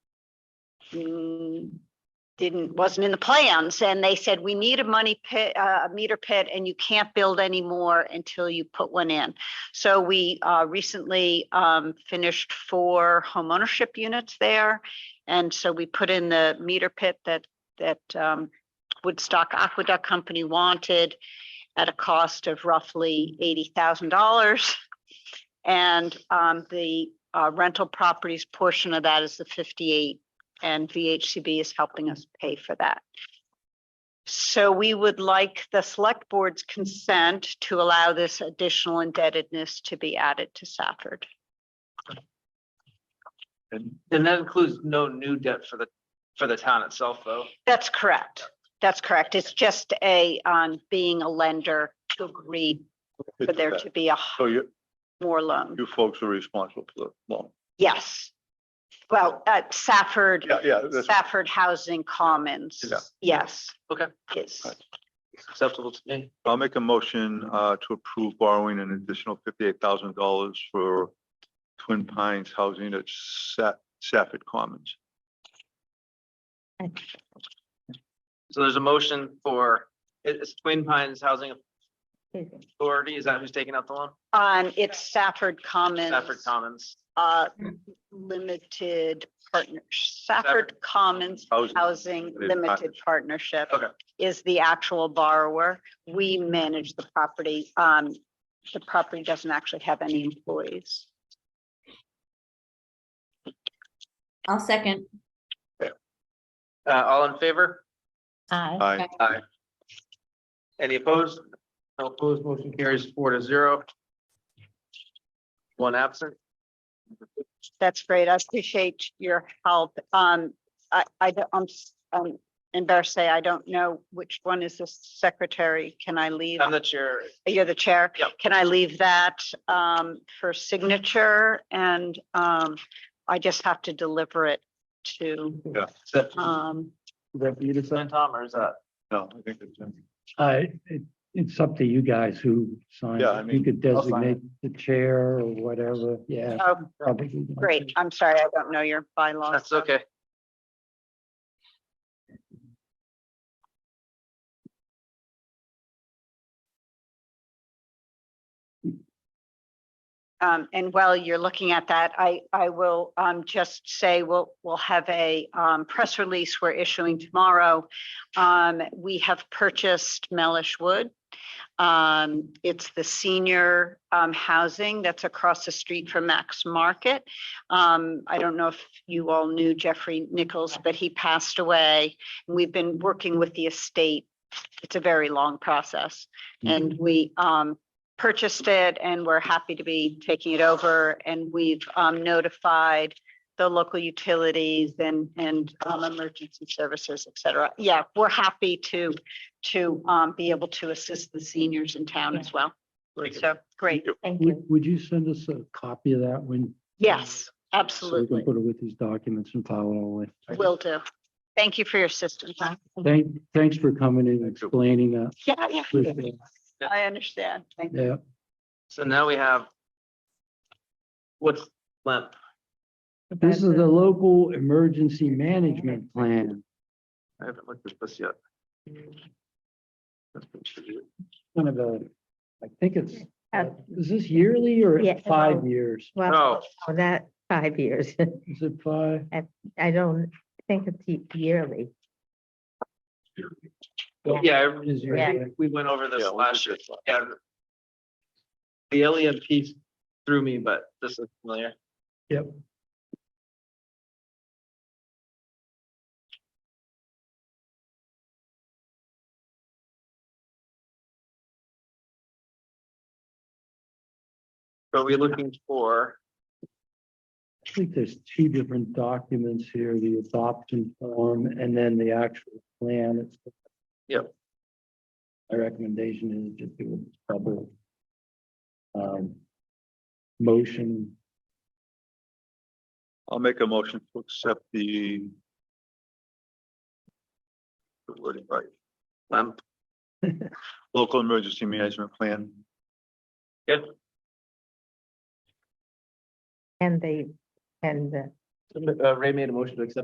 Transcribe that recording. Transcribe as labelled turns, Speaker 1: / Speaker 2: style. Speaker 1: mm, didn't, wasn't in the plans, and they said, we need a money pit, uh, a meter pit, and you can't build any more until you put one in. So we uh, recently um, finished four homeownership units there, and so we put in the meter pit that, that um, Woodstock Aqueduct Company wanted at a cost of roughly eighty thousand dollars. And um, the uh, rental properties portion of that is the fifty-eight, and VHCB is helping us pay for that. So we would like the select board's consent to allow this additional indebtedness to be added to Safford.
Speaker 2: And and that includes no new debt for the, for the town itself, though.
Speaker 1: That's correct. That's correct. It's just a, um, being a lender to agree for there to be a h-
Speaker 3: So you,
Speaker 1: more loan.
Speaker 3: you folks are responsible for the loan.
Speaker 1: Yes. Well, at Safford,
Speaker 3: Yeah, yeah, that's,
Speaker 1: Safford Housing Commons,
Speaker 3: Yeah.
Speaker 1: yes.
Speaker 2: Okay.
Speaker 1: Yes.
Speaker 2: Acceptable to me.
Speaker 3: I'll make a motion uh to approve borrowing an additional fifty-eight thousand dollars for Twin Pines Housing at Sa- Safford Commons.
Speaker 2: So there's a motion for, it- it's Twin Pines Housing Authority, is that who's taking out the loan?
Speaker 1: Um, it's Safford Commons,
Speaker 2: Stafford Commons.
Speaker 1: uh, Limited Partners, Safford
Speaker 2: Safford-
Speaker 1: Commons
Speaker 3: Housing.
Speaker 1: Housing
Speaker 3: Limited
Speaker 1: Limited
Speaker 3: Partners.
Speaker 1: Partnership.
Speaker 2: Okay.
Speaker 1: Is the actual borrower. We manage the property. Um, the property doesn't actually have any employees.
Speaker 4: I'll second.
Speaker 2: Uh, all in favor?
Speaker 4: Aye.
Speaker 3: Aye.
Speaker 2: Any opposed? No opposed, motion carries four to zero. One absent.
Speaker 1: That's great. I appreciate your help. Um, I, I, don't- I'm, s- I'm embarrassed to say I don't know which one is the secretary. Can I leave?
Speaker 2: I'm the chair.
Speaker 1: You're the chair.
Speaker 2: Yep.
Speaker 1: Can I leave that um for signature and um I just have to deliver it to
Speaker 2: Is that
Speaker 1: um
Speaker 5: that you
Speaker 2: Ben
Speaker 5: decide?
Speaker 2: Tom or is that?
Speaker 3: No, I think it's,
Speaker 5: I, Uh, it, it's up to you guys who sign.
Speaker 3: Yeah, I
Speaker 5: it.
Speaker 3: mean,
Speaker 5: You could
Speaker 2: I'll sign
Speaker 5: designate the chair or whatever, yeah.
Speaker 1: oh
Speaker 5: probably.
Speaker 1: great. I'm sorry, I don't know your bylaws.
Speaker 2: That's okay.
Speaker 1: Um and while you're looking at that, I I will um just say we'll we'll have a um press release we're issuing tomorrow. Um, we have purchased Mellish Wood. Um, it's the senior um housing that's across the street from Max Market. Um, I don't know if you all knew Jeffrey Nichols, but he passed away. We've been working with the estate. It's a very long process. And we um purchased it and we're happy to be taking it over. And we've um notified the local utilities and and um emergency services, et cetera. Yeah, we're happy to to um be able to assist the seniors in town as well. So, great.
Speaker 4: Thank
Speaker 5: Would, would you send us a copy of that when?
Speaker 1: Yes,
Speaker 5: So we
Speaker 1: absolutely.
Speaker 5: can put it with these documents and file it all with.
Speaker 1: Will do. Thank you for your assistance.
Speaker 5: Thank, thanks for coming and explaining that.
Speaker 1: Yeah, yeah,
Speaker 5: Appreciate it.
Speaker 1: I understand. Thank you.
Speaker 5: Yeah,
Speaker 2: So now we have. What's left?
Speaker 5: this is the local emergency management plan.
Speaker 2: I haven't looked at this yet. That's been true.
Speaker 5: Kind of a, I think it's, is this yearly or
Speaker 6: Yeah.
Speaker 5: five years?
Speaker 2: Oh.
Speaker 6: Well, oh, that five years.
Speaker 5: Is it five?
Speaker 6: I don't think it's ye- yearly.
Speaker 2: Yeah, I-
Speaker 5: Is
Speaker 2: I
Speaker 5: it-
Speaker 2: think we went over this
Speaker 3: Yeah, we
Speaker 2: last year. Yeah. The alien piece threw me, but this is familiar.
Speaker 5: Yep.
Speaker 2: So we're looking for,
Speaker 5: I think there's two different documents here, the adoption form and then the actual plan. It's-
Speaker 2: Yep.
Speaker 5: My recommendation is just do a double. Um. Motion,
Speaker 3: I'll make a motion to accept the the wording right,
Speaker 2: um,
Speaker 3: local emergency management plan.
Speaker 6: And they, and the
Speaker 2: uh, Ray made a motion to accept